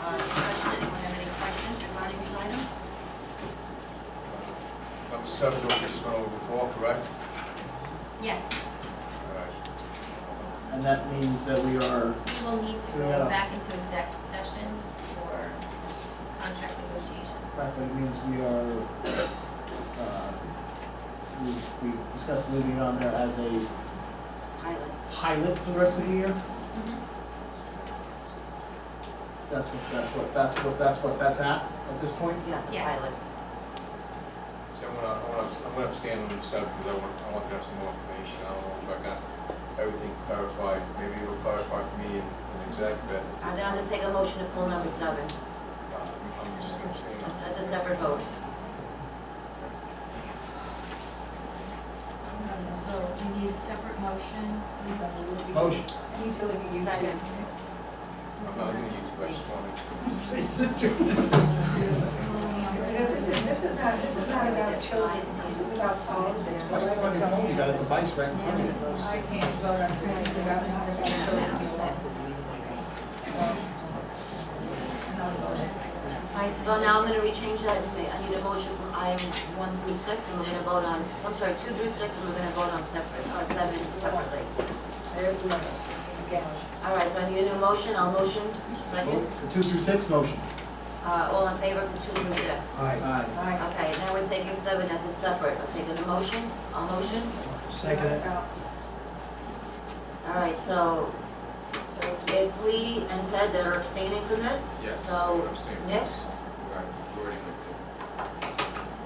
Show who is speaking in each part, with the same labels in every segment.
Speaker 1: uh,
Speaker 2: seven, what we just went over before, correct?
Speaker 1: Yes,
Speaker 2: All right.
Speaker 3: And that means that we are,
Speaker 1: we will need to
Speaker 3: Yeah.
Speaker 1: go back into exec session for contract negotiation.
Speaker 3: that means we are, uh, we, we discussed leaving it on there as a
Speaker 4: pilot.
Speaker 3: pilot for the rest of the year? Mm-hmm. That's what, that's what, that's what, that's what that's at, at this point?
Speaker 4: Yes, a
Speaker 1: Yes.
Speaker 4: pilot.
Speaker 2: So I'm gonna, I'm gonna, I'm gonna abstain on the seven, because I want, I want to have some more information, I don't know if I got everything clarified, maybe it'll clarify for me in in exec, but
Speaker 4: I'm gonna have to take a motion to pull number seven.
Speaker 2: uh, I'm just gonna abstain on
Speaker 4: That's a separate vote.
Speaker 1: So we need a separate motion.
Speaker 3: Motion.
Speaker 4: Second.
Speaker 2: I'm not gonna use, but I just wanted to.
Speaker 5: This is, this is not, this is not about children, this is about politics.
Speaker 3: Like, like, you know, you got a device right in front of you.
Speaker 5: I can't vote on this, this is about, not about children.
Speaker 4: Right, so now I'm gonna rechange that, and ma- I need a motion from item one through six, and we're gonna vote on, I'm sorry, two through six, and we're gonna vote on separate, uh, seven separately.
Speaker 5: Again,
Speaker 4: All right, so I need a new motion, I'll motion, second,
Speaker 3: The two through six motion.
Speaker 4: uh, all in favor for two through six.
Speaker 3: Aye.
Speaker 5: I,
Speaker 4: Okay, now we're taking seven as a separate, I'll take a motion, I'll motion,
Speaker 5: not about,
Speaker 4: all right, so it's Lee and Ted that are abstaining from this?
Speaker 2: Yes.
Speaker 4: So,
Speaker 2: abstain on
Speaker 4: Nick?
Speaker 2: this. Right, you already did.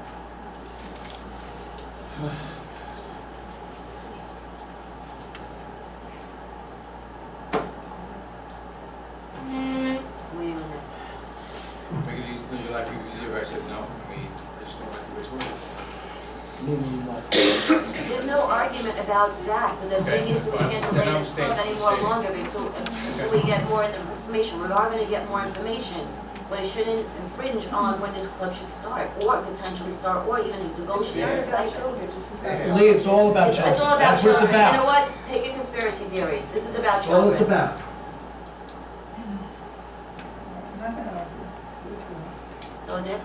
Speaker 4: wait a minute.
Speaker 2: Make it easy, make your life easier, I said no, I mean, I just don't like the way it's working.
Speaker 3: Meaning what?
Speaker 4: There's no argument about that, but the thing is, we can't delay
Speaker 2: Okay,
Speaker 4: this club
Speaker 2: fine.
Speaker 4: any more longer until, until we get more information. We are gonna get more information, but it shouldn't infringe on when this club should start, or potentially start, or even negotiate a
Speaker 5: it's not about
Speaker 4: stipend.
Speaker 5: children, this is about.
Speaker 6: Lee, it's all about
Speaker 4: It's
Speaker 6: children.
Speaker 4: it's all about
Speaker 6: That's what it's
Speaker 4: children. You know
Speaker 6: about.
Speaker 4: what? Take your conspiracy theories. This is about
Speaker 6: That's all
Speaker 4: children.
Speaker 6: it's about.
Speaker 5: I'm not gonna argue.
Speaker 4: So Nick,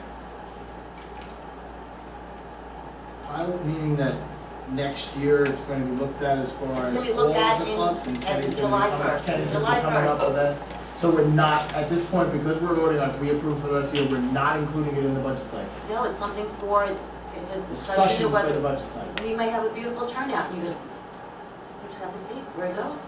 Speaker 3: Pilot meaning that next year it's going to be looked at as far
Speaker 4: It's
Speaker 3: as
Speaker 4: gonna be
Speaker 3: all
Speaker 4: looked at
Speaker 3: of the
Speaker 4: in-
Speaker 3: clubs and
Speaker 4: at
Speaker 3: anything
Speaker 4: July
Speaker 3: coming up,
Speaker 4: 1st,
Speaker 3: tennis is
Speaker 4: July
Speaker 3: coming up
Speaker 4: 1st.
Speaker 3: with that. So we're not, at this point, because we're voting on, if we approve for the rest of the year, we're not including it in the budget cycle.
Speaker 4: no, it's something for, it's a discussion
Speaker 3: Discussion
Speaker 4: of
Speaker 3: for the
Speaker 4: whether,
Speaker 3: budget cycle.
Speaker 4: we may have a beautiful turnout, you, we just have to see where it goes.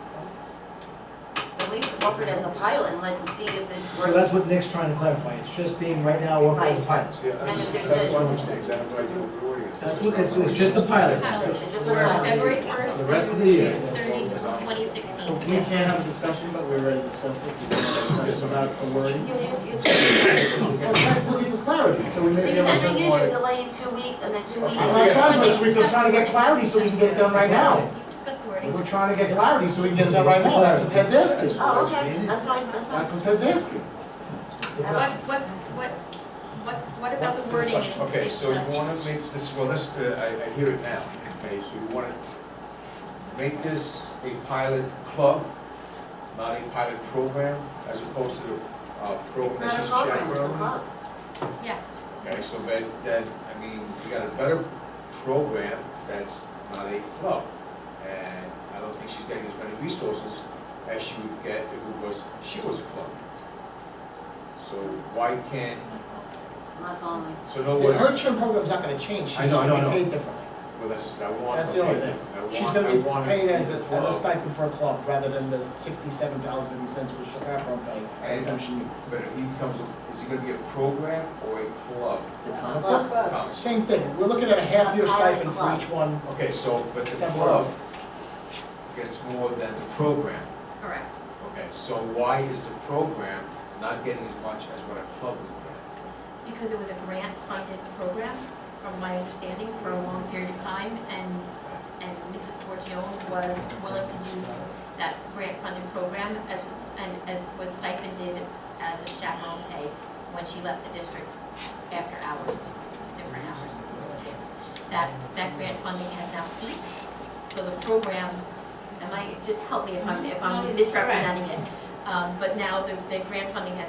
Speaker 4: At least offer it as a pilot and let to see if it's
Speaker 6: So
Speaker 4: worth.
Speaker 6: that's what Nick's trying to clarify. It's just being right now offered as a pilot.
Speaker 2: See, I
Speaker 4: And if
Speaker 2: just,
Speaker 4: there's a-
Speaker 2: that's one of the mistakes, I don't like the way it's working.
Speaker 6: That's what, it's, it's just a pilot.
Speaker 4: It's just a pilot.
Speaker 1: February
Speaker 6: The
Speaker 1: first,
Speaker 6: rest of the year.
Speaker 1: thirty, twenty sixteen.
Speaker 3: We can't have a discussion, but we already discussed this, we discussed about the
Speaker 4: You,
Speaker 3: wording.
Speaker 4: you, you.
Speaker 3: Well, that's looking for clarity, so we may be
Speaker 4: Because
Speaker 3: able
Speaker 4: the
Speaker 3: to
Speaker 4: thing
Speaker 3: do
Speaker 4: is,
Speaker 3: more.
Speaker 4: you're delaying two weeks and then two weeks.
Speaker 3: I'm not trying to, we're still trying to get clarity so we can get it done right now.
Speaker 1: You discussed the
Speaker 3: We're
Speaker 1: wording.
Speaker 3: trying to get clarity so we can get it done right now, that's what Ted's asking. for.
Speaker 4: Oh, okay, that's fine, that's fine.
Speaker 3: That's what Ted's asking.
Speaker 1: What, what's, what, what's, what about the wording is,
Speaker 2: Okay,
Speaker 1: is
Speaker 2: so you
Speaker 1: such?
Speaker 2: wanna make this, well, this, uh, I, I hear it now, okay, so you wanna make this a pilot club, not a pilot program, as opposed to, uh, program
Speaker 4: It's
Speaker 2: that's
Speaker 4: not a
Speaker 2: just
Speaker 4: program, it's a
Speaker 2: chaperone?
Speaker 4: club.
Speaker 1: Yes,
Speaker 2: Okay, so that, that, I mean, we got a better program that's not a club. And I don't think she's getting as many resources as she would get if it was, she was a club. So why can't,
Speaker 4: I'm not following.
Speaker 2: so no words,
Speaker 3: Her term program's not gonna change, she's
Speaker 2: I know, I
Speaker 3: just
Speaker 2: know, I
Speaker 3: gonna
Speaker 2: know.
Speaker 3: be paid differently.
Speaker 2: well, that's just, I want.
Speaker 3: That's
Speaker 2: her
Speaker 3: the only
Speaker 2: paid.
Speaker 3: thing.
Speaker 2: I want-
Speaker 3: She's gonna be
Speaker 2: I want her
Speaker 3: paid as
Speaker 2: to
Speaker 3: a,
Speaker 2: be
Speaker 3: as a
Speaker 2: club.
Speaker 3: stipend for a club, rather than the sixty-seven dollars fifty cents for chaperone pay every time she meets.
Speaker 2: But if he becomes, a- is he gonna be a program or a club?
Speaker 4: The
Speaker 3: Yeah.
Speaker 4: club.
Speaker 2: Um,
Speaker 3: Same thing, we're looking at a half-year
Speaker 4: A pilot
Speaker 3: stipend for
Speaker 4: club.
Speaker 3: each one.
Speaker 2: Okay, so, but the
Speaker 3: That's
Speaker 2: club gets more than the program.
Speaker 1: correct.
Speaker 2: Okay, so why is the program not getting as much as what a club would get?
Speaker 1: Because it was a grant-funded program, from my understanding, for a long period of time, and, and Mrs. Torchione was willing to do that grant-funded program as, and as was stipended as a chaperone pay when she left the district after hours, different hours with the kids. That, that grant funding has now ceased, so the program, am I, just help me if I'm, if I'm misrepresenting it. Um, but now the, the grant funding has